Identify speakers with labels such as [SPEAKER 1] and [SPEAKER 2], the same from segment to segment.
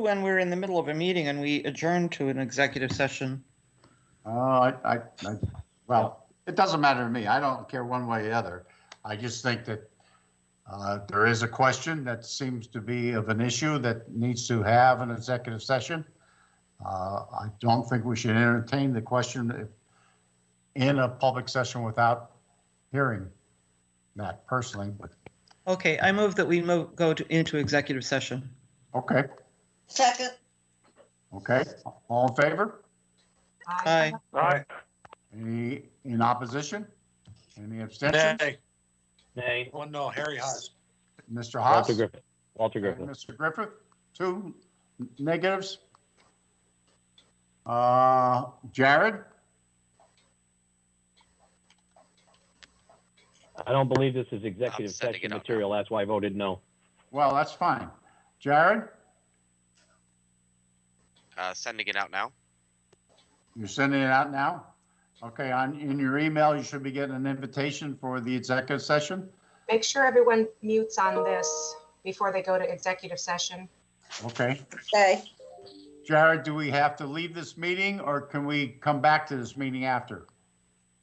[SPEAKER 1] when we're in the middle of a meeting and we adjourn to an executive session.
[SPEAKER 2] Oh, I, I, I, well, it doesn't matter to me. I don't care one way or the other. I just think that uh, there is a question that seems to be of an issue that needs to have an executive session. Uh, I don't think we should entertain the question in a public session without hearing that personally, but,
[SPEAKER 1] Okay, I move that we mo- go to, into executive session.
[SPEAKER 2] okay,
[SPEAKER 3] Second,
[SPEAKER 2] okay. All in favor?
[SPEAKER 1] Aye.
[SPEAKER 4] Aye.
[SPEAKER 2] Any in opposition? Any abstentions?
[SPEAKER 4] Nay.
[SPEAKER 5] Nay.
[SPEAKER 4] Well, no, Harry Haas.
[SPEAKER 2] Mr. Haas?
[SPEAKER 5] Walter Griffin. Walter
[SPEAKER 2] Okay,
[SPEAKER 5] Griffin.
[SPEAKER 2] Mr. Griffith, two negatives. Uh, Jared,
[SPEAKER 5] I don't believe this is
[SPEAKER 6] I'm
[SPEAKER 5] executive
[SPEAKER 6] setting
[SPEAKER 5] session
[SPEAKER 6] it up.
[SPEAKER 5] material. That's why I voted no.
[SPEAKER 2] well, that's fine. Jared,
[SPEAKER 6] Uh, sending it out now.
[SPEAKER 2] you're sending it out now? Okay, on, in your email, you should be getting an invitation for the executive session.
[SPEAKER 7] Make sure everyone mutes on this before they go to executive session.
[SPEAKER 2] Okay.
[SPEAKER 3] okay,
[SPEAKER 2] Jared, do we have to leave this meeting or can we come back to this meeting after?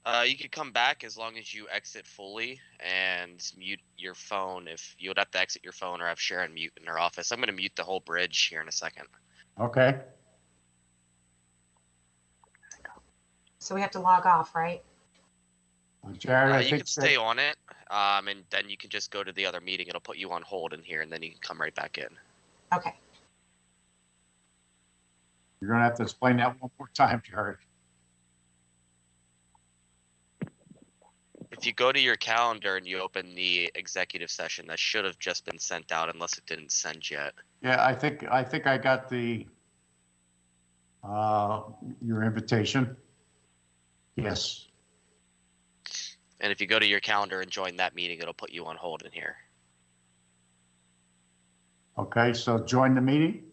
[SPEAKER 6] Uh, you could come back as long as you exit fully and mute your phone. If you would have to exit your phone or have Sharon mute in her office, I'm going to mute the whole bridge here in a second.
[SPEAKER 2] Okay,
[SPEAKER 7] So we have to log off, right?
[SPEAKER 2] Jared,
[SPEAKER 6] Uh,
[SPEAKER 2] I
[SPEAKER 6] you
[SPEAKER 2] think.
[SPEAKER 6] can stay on it, um, and then you can just go to the other meeting. It'll put you on hold in here, and then you can come right back in.
[SPEAKER 7] Okay.
[SPEAKER 2] You're gonna have to explain that one more time, Jared.
[SPEAKER 6] If you go to your calendar and you open the executive session, that should have just been sent out, unless it didn't send yet.
[SPEAKER 2] Yeah, I think, I think I got the, uh, your invitation. Yes,
[SPEAKER 6] And if you go to your calendar and join that meeting, it'll put you on hold in here.
[SPEAKER 2] okay, so join the meeting?